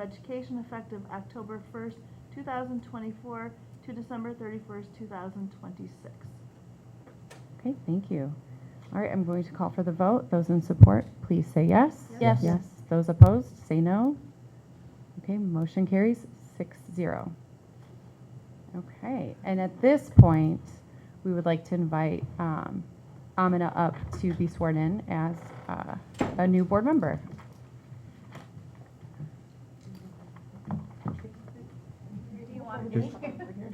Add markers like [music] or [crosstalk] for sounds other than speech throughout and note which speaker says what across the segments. Speaker 1: for Education effective October 1st, 2024 to December 31st, 2026.
Speaker 2: Okay, thank you. All right, I'm going to call for the vote. Those in support, please say yes.
Speaker 1: Yes. Yes.
Speaker 2: Yes. Those opposed, say no. Okay, motion carries six zero. Okay, and at this point, we would like to invite um, Amina up to be sworn in as uh, a new board member.
Speaker 3: Just,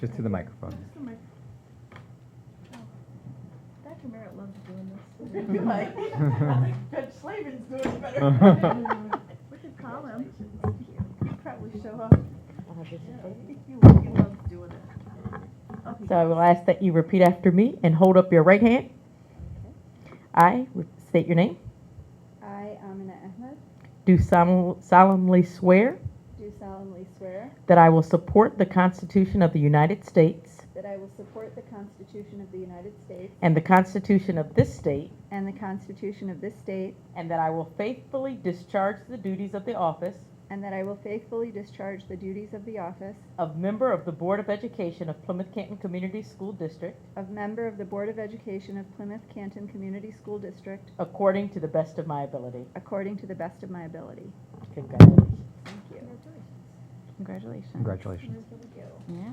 Speaker 3: just to the microphone.
Speaker 1: Dr. Merritt loves
Speaker 4: [laughs]
Speaker 1: doing this.
Speaker 5: Judge Slavin's doing better.
Speaker 3: better.
Speaker 1: We could call him.
Speaker 5: He'd probably show up.
Speaker 1: He loves he loves doing it.
Speaker 6: So I will ask that you repeat after me and hold up your right hand. I re- state your name.
Speaker 4: I, Amina Ahmed,
Speaker 6: Do sol- solemnly swear
Speaker 4: do solemnly swear
Speaker 6: that I will support the Constitution of the United States
Speaker 4: that I will support the Constitution of the United States
Speaker 6: and the Constitution of this state,
Speaker 4: and the Constitution of this state,
Speaker 6: and that I will faithfully discharge the duties of the office
Speaker 4: and that I will faithfully discharge the duties of the office
Speaker 6: of member of the Board of Education of Plymouth Canton Community School District
Speaker 4: of member of the Board of Education of Plymouth Canton Community School District
Speaker 6: according to the best of my ability.
Speaker 4: according to the best of my ability.
Speaker 6: Congratulations.
Speaker 4: Thank you.
Speaker 2: Congratulations.
Speaker 3: Congratulations.
Speaker 2: Yeah.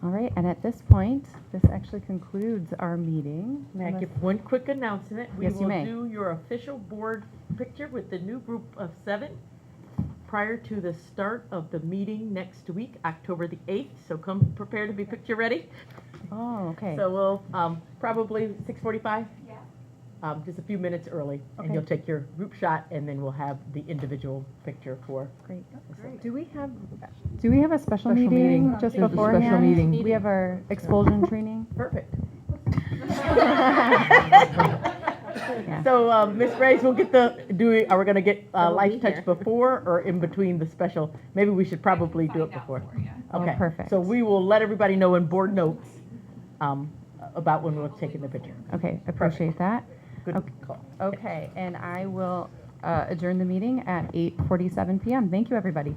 Speaker 2: All right, and at this point, this actually concludes our meeting.
Speaker 6: May I
Speaker 2: Unless-
Speaker 6: give one quick announcement?
Speaker 2: Yes, you may.
Speaker 6: We will do your official board picture with the new group of seven prior to the start of the meeting next week, October the 8th. So come prepared to be picture ready.
Speaker 2: Oh, okay.
Speaker 6: So we'll, um, probably 6:45? Yeah. Um, just a few minutes early.
Speaker 2: Okay.
Speaker 6: And you'll take your group shot and then we'll have the individual picture for.
Speaker 2: Great.
Speaker 1: Great.
Speaker 2: Do we have, do we have a special
Speaker 6: Special
Speaker 2: meeting
Speaker 6: meeting.
Speaker 2: just
Speaker 6: We have a special
Speaker 2: beforehand?
Speaker 6: meeting.
Speaker 2: We have our [laughs] expulsion training?
Speaker 6: Perfect. [laughs]
Speaker 2: Yeah.
Speaker 6: So, um, Ms. Reyes, we'll get the, do, we- are we gonna get, uh, will be Life Touch
Speaker 2: here.
Speaker 6: before or in between the special? Maybe we should probably do it
Speaker 7: find out
Speaker 6: before.
Speaker 7: for ya.
Speaker 2: Oh,
Speaker 6: Okay.
Speaker 2: perfect.
Speaker 6: So we will let everybody know in board notes, um, about when we're taking the picture.
Speaker 2: Okay, appreciate that.
Speaker 6: Good
Speaker 2: Okay.
Speaker 6: call.
Speaker 2: Okay, and I will uh, adjourn the meeting at 8:47 PM. Thank you, everybody.